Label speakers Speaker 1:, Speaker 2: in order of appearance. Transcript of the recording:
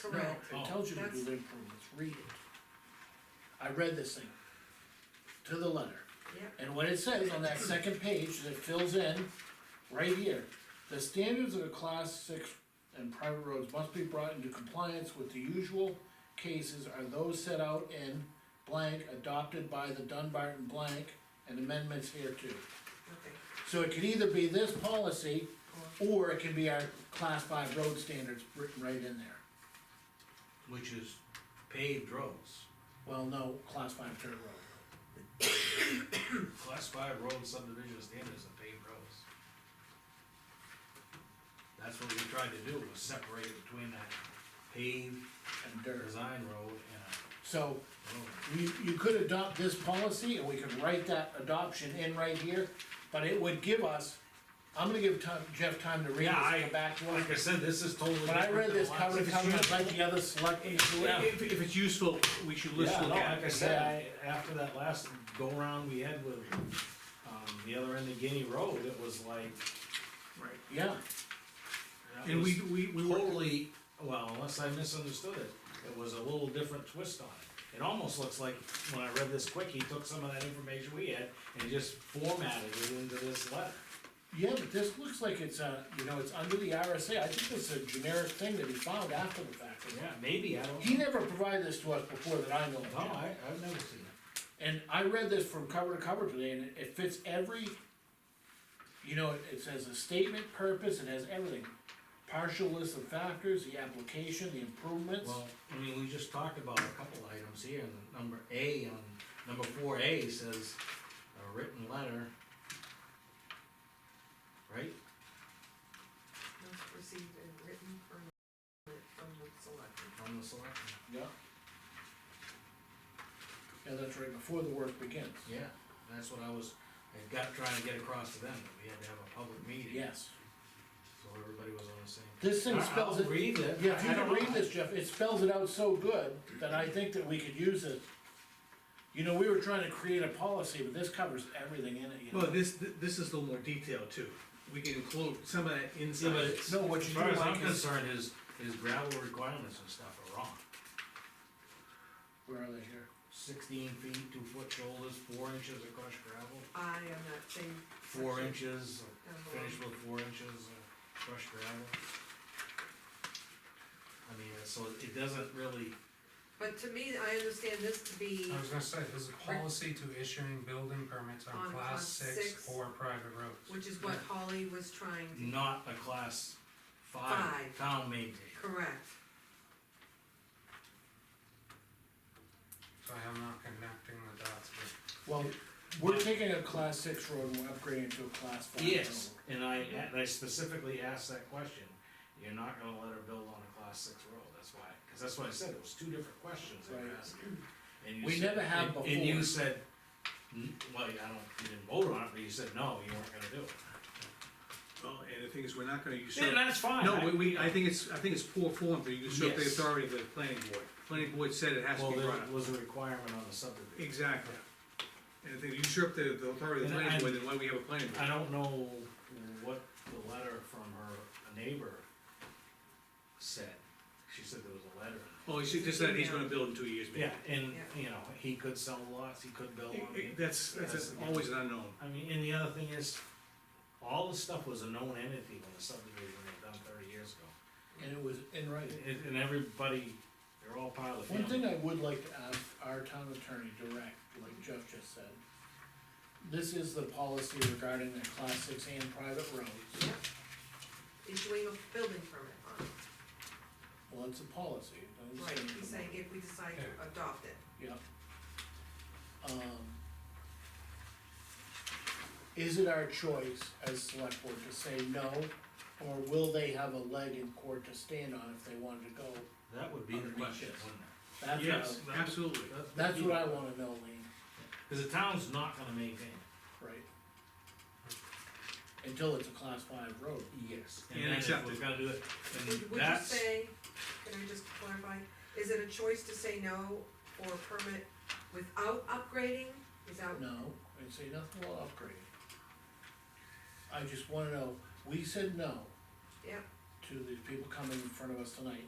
Speaker 1: Correct.
Speaker 2: No,
Speaker 3: Oh.
Speaker 2: it tells you to do
Speaker 1: That's-
Speaker 2: improvements, read it. I read this thing to the letter,
Speaker 1: Yep,
Speaker 2: and what it says on that second page that fills in, right here. The standards of the class six and private roads must be brought into compliance with the usual cases are those set out in blank, adopted by the Dunbarton blank, and amendments hereto.
Speaker 1: okay,
Speaker 2: So it could either be this policy, or it can be our class five road standards written right in there.
Speaker 3: which is paved roads.
Speaker 2: Well, no, class five dirt road.
Speaker 3: Class five road subdivision standards are paved roads. That's what we tried to do, was separate between that paved
Speaker 2: and dirt.
Speaker 3: design road and
Speaker 2: So
Speaker 3: a road.
Speaker 2: you, you could adopt this policy and we could write that adoption in right here, but it would give us, I'm gonna give time, Jeff time to read this
Speaker 3: Yeah,
Speaker 2: and
Speaker 3: I,
Speaker 2: come back to it.
Speaker 3: like I said, this is totally.
Speaker 2: When I
Speaker 3: different
Speaker 2: read
Speaker 3: than
Speaker 2: this
Speaker 3: the
Speaker 2: cover
Speaker 3: last-
Speaker 2: to cover, I'd like the other select.
Speaker 4: If, if- if it's useful, we should list
Speaker 3: Yeah,
Speaker 4: it
Speaker 3: no,
Speaker 4: out.
Speaker 3: like I said, I, after that last go-round we had with, um, the other end of Guinea Road, it was like.
Speaker 4: Right.
Speaker 2: Yeah,
Speaker 3: that
Speaker 4: And
Speaker 3: was
Speaker 4: we, we, we worked,
Speaker 3: Totally, well, unless I misunderstood it, it was a little different twist on it. It almost looks like, when I read this quick, he took some of that information we had and he just formatted it into this letter.
Speaker 2: yeah, but this looks like it's, uh, you know, it's under the RSA, I think it's a generic thing that he found after the fact.
Speaker 3: Yeah, maybe, I don't
Speaker 2: He
Speaker 3: know.
Speaker 2: never provided this to us before that I know of.
Speaker 3: No, I, I've never seen it.
Speaker 2: And I read this from cover to cover today, and it- it fits every, you know, it- it says a statement, purpose, it has everything. Partial list of factors, the application, the improvements.
Speaker 3: Well, I mean, we just talked about a couple items here, and number A, on number four A says, a written letter. Right?
Speaker 1: notes received and written permit from the selectmen.
Speaker 3: From the selectmen.
Speaker 2: Yeah. Yeah, that's right, before the work begins.
Speaker 3: Yeah, that's what I was, I got, trying to get across to them, that we had to have a public meeting.
Speaker 2: Yes.
Speaker 3: So everybody was on the same.
Speaker 2: This thing
Speaker 3: I-
Speaker 2: spells
Speaker 3: I'll
Speaker 2: it,
Speaker 3: read it.
Speaker 2: yeah, if
Speaker 3: I-
Speaker 2: you
Speaker 3: I
Speaker 2: can
Speaker 3: don't
Speaker 2: read
Speaker 3: know.
Speaker 2: this, Jeff, it spells it out so good that I think that we could use it. You know, we were trying to create a policy, but this covers everything in it, you know.
Speaker 4: well, this, this is a little more detailed too. We can include some of that
Speaker 3: Yeah, but
Speaker 4: inside.
Speaker 3: it's-
Speaker 2: No, what
Speaker 3: As
Speaker 2: you
Speaker 3: far
Speaker 2: do
Speaker 3: as I'm
Speaker 2: like is,
Speaker 3: concerned, his, his gravel requirements and stuff are wrong.
Speaker 2: where are they here?
Speaker 3: Sixteen feet, two foot shoulders, four inches of crushed gravel,
Speaker 1: I am not saying.
Speaker 3: four inches,
Speaker 1: down below.
Speaker 3: finished with four inches of crushed gravel. I mean, so it doesn't really,
Speaker 1: But to me, I understand this to be,
Speaker 5: I
Speaker 3: Oh,
Speaker 5: was gonna say, there's a policy to issuing building permits
Speaker 1: On
Speaker 5: on
Speaker 1: class
Speaker 5: class
Speaker 1: six.
Speaker 5: six or private roads.
Speaker 1: which is what Holly was trying to,
Speaker 3: not a class five
Speaker 1: Five.
Speaker 3: town maintained.
Speaker 1: correct.
Speaker 5: So I'm not connecting the dots, but
Speaker 2: Well, we're taking a class six road and we're upgrading it to a class five road.
Speaker 3: Yes, and I, and I specifically asked that question, you're not gonna let her build on a class six road, that's why, cause that's what I said, it was two different questions I
Speaker 2: Right.
Speaker 3: asked you. And you
Speaker 2: We
Speaker 3: said-
Speaker 2: never have
Speaker 3: and- And you
Speaker 2: before.
Speaker 3: said, "N- well, I don't, you didn't vote on it, but you said, no, you weren't gonna do it.
Speaker 4: Well, Oh, and the thing is, we're not gonna
Speaker 3: Yeah,
Speaker 4: usurp.
Speaker 3: that's fine.
Speaker 4: No,
Speaker 3: I-
Speaker 4: we, we, I think it's, I think it's poor form to usurp the
Speaker 3: Yes.
Speaker 4: authority of the planning board. Planning board said it has to
Speaker 3: Well,
Speaker 4: be
Speaker 3: there
Speaker 4: brought up.
Speaker 3: was a requirement on the subdivision.
Speaker 4: Exactly. And if they usurp the, the authority of the
Speaker 3: And I-
Speaker 4: planning board, then why we have a planning board?
Speaker 3: I don't know what the letter from her neighbor said, she said there was a letter.
Speaker 4: Oh, it's just that he's gonna build in two years, maybe.
Speaker 3: Yeah, and,
Speaker 1: Yeah.
Speaker 3: you know, he could sell lots, he could build
Speaker 4: It-
Speaker 3: on
Speaker 4: it-
Speaker 3: it.
Speaker 4: That's, that's
Speaker 3: That's-
Speaker 4: always an unknown.
Speaker 3: I mean, and the other thing is, all the stuff was a known entity when the subdivision was done thirty years ago.
Speaker 2: And it was in writing.
Speaker 3: And, and everybody, they're all part of the
Speaker 2: One thing
Speaker 3: family.
Speaker 2: I would like to ask our town attorney direct, like Jeff just said. This is the policy regarding the class six and private roads.
Speaker 1: Yep. Issuing a building permit on it.
Speaker 2: Well, it's a policy. it doesn't say
Speaker 1: Right,
Speaker 2: anything
Speaker 1: he's saying
Speaker 2: about it.
Speaker 1: if we decide to adopt it.
Speaker 2: Yeah. Um. Is it our choice as select board to say no, or will they have a leg in court to stand on if they wanted to go?
Speaker 3: That would be the
Speaker 2: Underneath
Speaker 3: question,
Speaker 2: this.
Speaker 3: wouldn't
Speaker 2: That's what I-
Speaker 4: Yes, absolutely.
Speaker 3: it?
Speaker 2: That's what I wanna know, Lean,
Speaker 3: Cause the town's not gonna maintain it.
Speaker 2: right? Until it's a class five road.
Speaker 3: Yes.
Speaker 4: And
Speaker 3: And then if
Speaker 4: accept
Speaker 3: we're
Speaker 4: it.
Speaker 3: gonna do it,
Speaker 1: Would
Speaker 3: and
Speaker 1: would you
Speaker 3: that's,
Speaker 1: say, can I just clarify, is it a choice to say no or permit without upgrading, without,
Speaker 2: No, and say nothing will upgrade. I just wanna know, we said no
Speaker 1: yeah,
Speaker 2: to these people coming in front of us tonight.